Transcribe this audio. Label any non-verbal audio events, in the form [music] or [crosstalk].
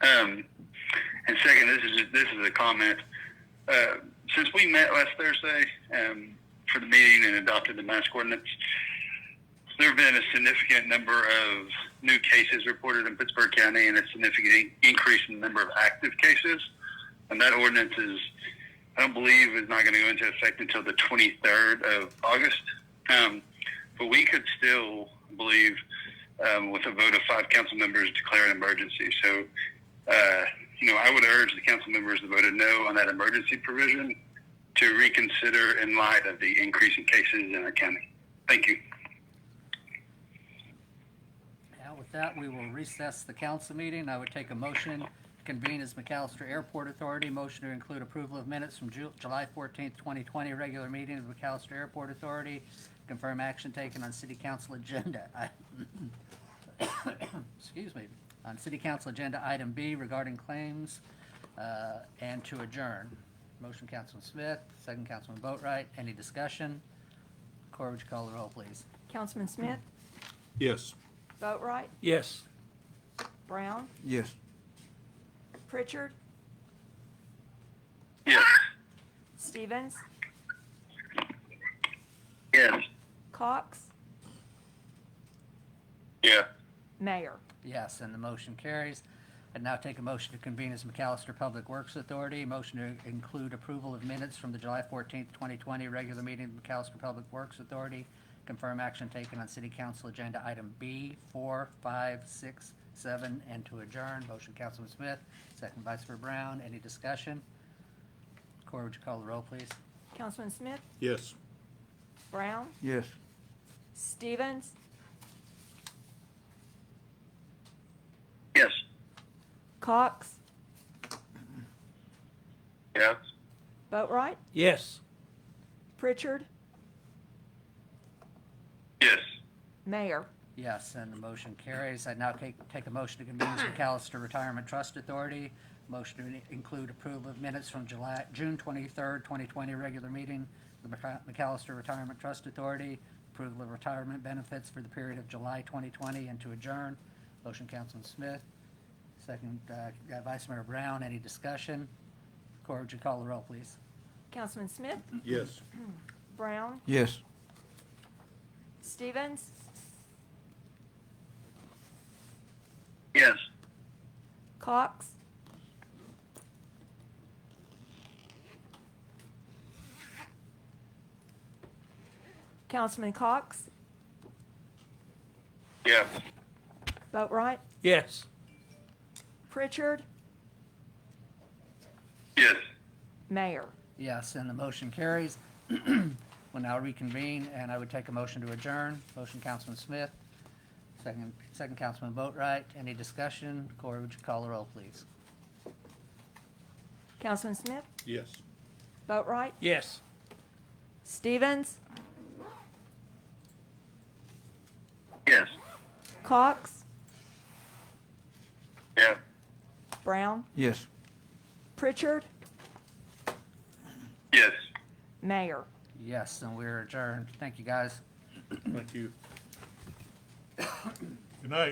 Um, and second, this is this is a comment. Uh, since we met last Thursday um, for the meeting and adopted the mask ordinance, there have been a significant number of new cases reported in Pittsburgh County and a significant increase in the number of active cases. And that ordinance is, I don't believe, is not going to go into effect until the 23rd of August. Um, but we could still, I believe, um, with a vote of five council members, declare an emergency. So, uh, you know, I would urge the council members that voted no on that emergency provision to reconsider in light of the increase in cases in our county. Thank you. Now, with that, we will recess the council meeting. I would take a motion to convene as McAllister Airport Authority. Motion to include approval of minutes from Ju- July 14th, 2020, regular meeting of McAllister Airport Authority. Confirm action taken on city council agenda. [coughs] I- Excuse me. On city council agenda, item B regarding claims uh, and to adjourn. Motion, Councilman Smith, second Councilman Boatright. Any discussion? Cora, would you call the roll, please? Councilman Smith, Yes. Boatright, Yes. Brown, Yes. Pritchard, Yes. Stevens, Yes. Cox, Yeah. Mayor. Yes, and the motion carries. I'd now take a motion to convene as McAllister Public Works Authority. Motion to include approval of minutes from the July 14th, 2020 regular meeting of McAllister Public Works Authority. Confirm action taken on city council agenda item B, 4, 5, 6, 7, and to adjourn. Motion, Councilman Smith, second Vice Mayor Brown. Any discussion? Cora, would you call the roll, please? Councilman Smith, Yes. Brown, Yes. Stevens, Yes. Cox, Yes. Boatright, Yes. Pritchard, Yes. Mayor. Yes, and the motion carries. I now take, take a motion to convene as McAllister Retirement Trust Authority. Motion to in- include approval of minutes from July, June twenty-third, twenty twenty, regular meeting, of the McA- McAllister Retirement Trust Authority, approval of retirement benefits for the period of July twenty twenty, and to adjourn. Motion, Councilman Smith. Second, uh, Vice Mayor Brown, any discussion? Cora, would you call the roll, please? Councilman Smith, Yes. Brown, Yes. Stevens, Yes. Cox, Councilman Cox, Yeah. Boatright, Yes. Pritchard, Yes. Mayor. Yes, and the motion carries. [clears throat] We'll now reconvene, and I would take a motion to adjourn. Motion, Councilman Smith. Second, second Councilman Boatright. Any discussion? Corey, would you call the roll, please? Councilman Smith, Yes. Boatright, Yes. Stevens, Yes. Cox, Yeah. Brown, Yes. Pritchard, Yes. Mayor. Yes, and we're adjourned. Thank you, guys. Thank you. [coughs] Good night.